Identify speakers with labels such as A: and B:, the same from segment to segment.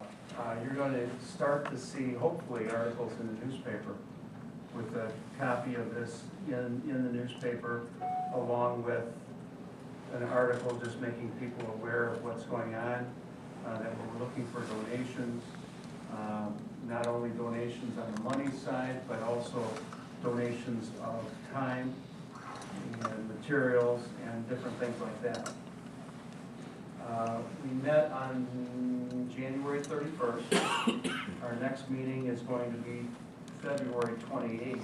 A: uh, you're going to start to see, hopefully, articles in the newspaper with a copy of this in, in the newspaper, along with an article just making people aware of what's going on, uh, that we're looking for donations, um, not only donations on the money side, but also donations of time and materials and different things like that. Uh, We met on January 31st. Our next meeting is going to be February 28th.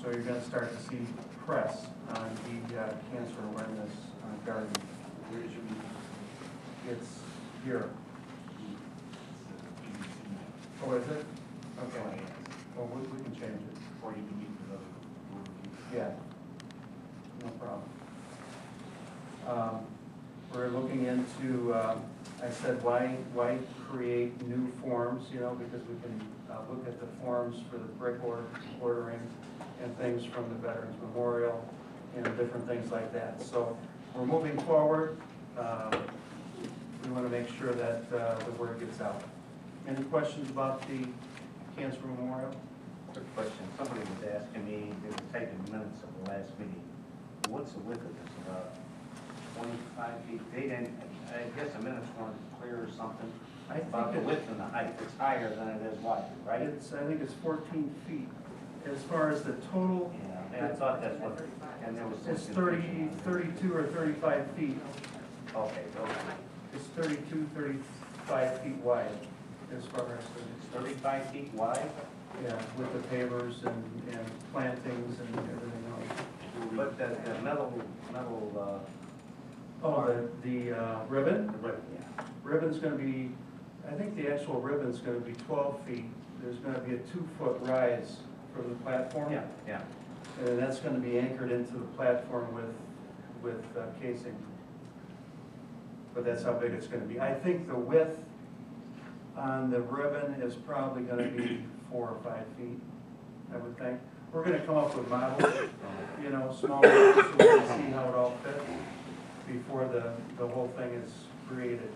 A: So you're going to start to see press on the uh, cancer awareness uh, garden.
B: Where's your meeting?
A: It's here. Oh, is it? Okay. Well, we we can change it.
B: Or you can meet with other board members.
A: Yeah. No problem. Um, We're looking into, uh, I said, why, why create new forms, you know, because we can uh, look at the forms for the brick or- ordering and things from the Veterans Memorial, you know, different things like that. So we're moving forward. Uh, We want to make sure that uh, the word gets out. Any questions about the Cancer Memorial?
C: Quick question, somebody was asking me, they were taking minutes of the last meeting, what's the width of this, about twenty-five feet? They didn't, I guess the minutes weren't clear or something,
A: I think
C: about the
A: it-
C: width and the height, it's higher than it is wide, right?
A: It's, I think it's fourteen feet. As far as the total,
C: Yeah, and I thought that's what, and there was some
A: it's 30
C: confusion
A: 32
C: on it.
A: or thirty-five feet.
C: Okay, those,
A: It's 32, 35 feet wide as far as
C: it's thirty-five feet wide,
A: the, yeah, with the pavers and, and plantings and everything else.
C: but the, the metal, metal,
A: Oh, the, the uh, ribbon?
C: uh, the ribbon, yeah.
A: Ribbon's gonna be, I think the actual ribbon's gonna be twelve feet. There's gonna be a two-foot rise from the platform.
C: Yeah, yeah,
A: And Uh, that's gonna be anchored into the platform with, with uh, casing. But that's how big it's gonna be. I think the width on the ribbon is probably gonna be four or five feet, I would think. We're gonna come up with models, you know, small models, so we can see how it all fits before the, the whole thing is created.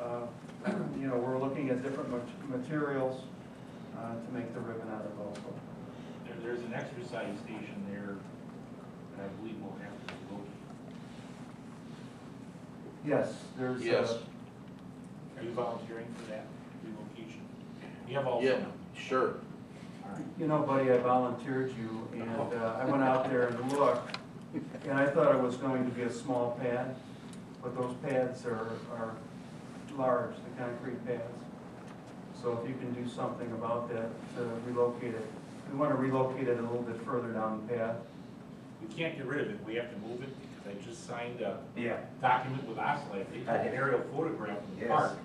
A: Uh, You know, we're looking at different mat- materials uh, to make the ribbon out of also.
B: There, there's an exercise station there that I believe will have to be located.
A: Yes, there's. uh,
D: Yes.
B: Are you volunteering for that relocation? You have all.
D: Yeah, sure.
B: All right.
A: You know, buddy, I volunteered you, and uh, I went out there and looked, and I thought it was going to be a small pad, but those pads are, are large, the concrete pads. So if you can do something about that, to relocate it, we want to relocate it a little bit further down the path.
B: We can't get rid of it, we have to move it, because I just signed a
C: yeah.
B: document with Oxley, they took an aerial photograph of the
C: Yes.
B: park,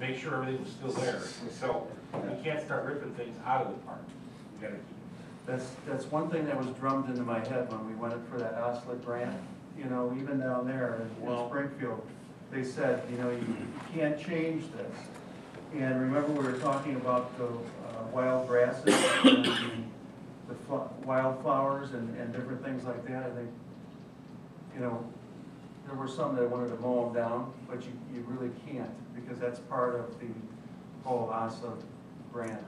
B: make sure everything was still there, so we can't start ripping things out of the park. We gotta keep,
A: That's, that's one thing that was drummed into my head when we went in for that Osler grant, you know, even down there in- in
D: Well-
A: Springfield, they said, you know, you you can't change this. And remember, we were talking about the uh, wild grasses, and the the fl- wildflowers and, and different things like that, I think, you know, there were some that wanted to mow them down, but you, you really can't, because that's part of the whole Osler grant.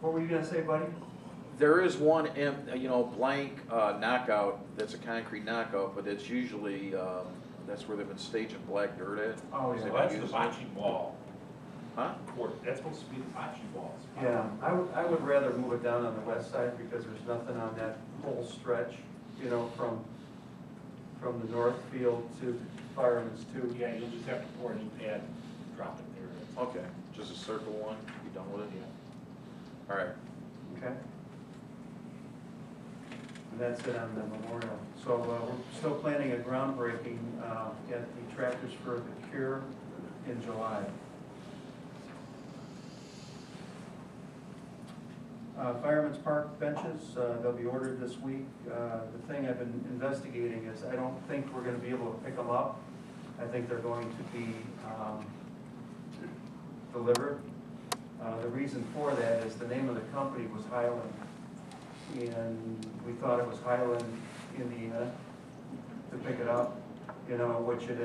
A: What were you gonna say, buddy?
D: There is one, em- you know, blank uh, knockout, that's a concrete knockout, but it's usually, um, that's where they've been staging black dirt at.
A: Oh,
D: Is
A: yeah.
D: it-
B: well, that's the bocce ball
D: Huh?
B: court, that's supposed to be the bocce balls.
A: Yeah, I would, I would rather move it down on the west side because there's nothing on that whole stretch, you know, from, from the north field to Fireman's Two.
B: Yeah, you'll just have to pour a new pad, drop it there. That's-
D: Okay, just a circle one, you done with it? All right,
A: Okay? And that's it on the memorial. So uh, we're still planning a groundbreaking uh, at the Tractors for the Cure in July. Uh, Fireman's Park benches, uh, they'll be ordered this week. Uh, The thing I've been investigating is I don't think we're gonna be able to pick them up. I think they're going to be um, delivered. Uh, The reason for that is the name of the company was Highland, and we thought it was Highland, Indiana, to pick it up, you know, which it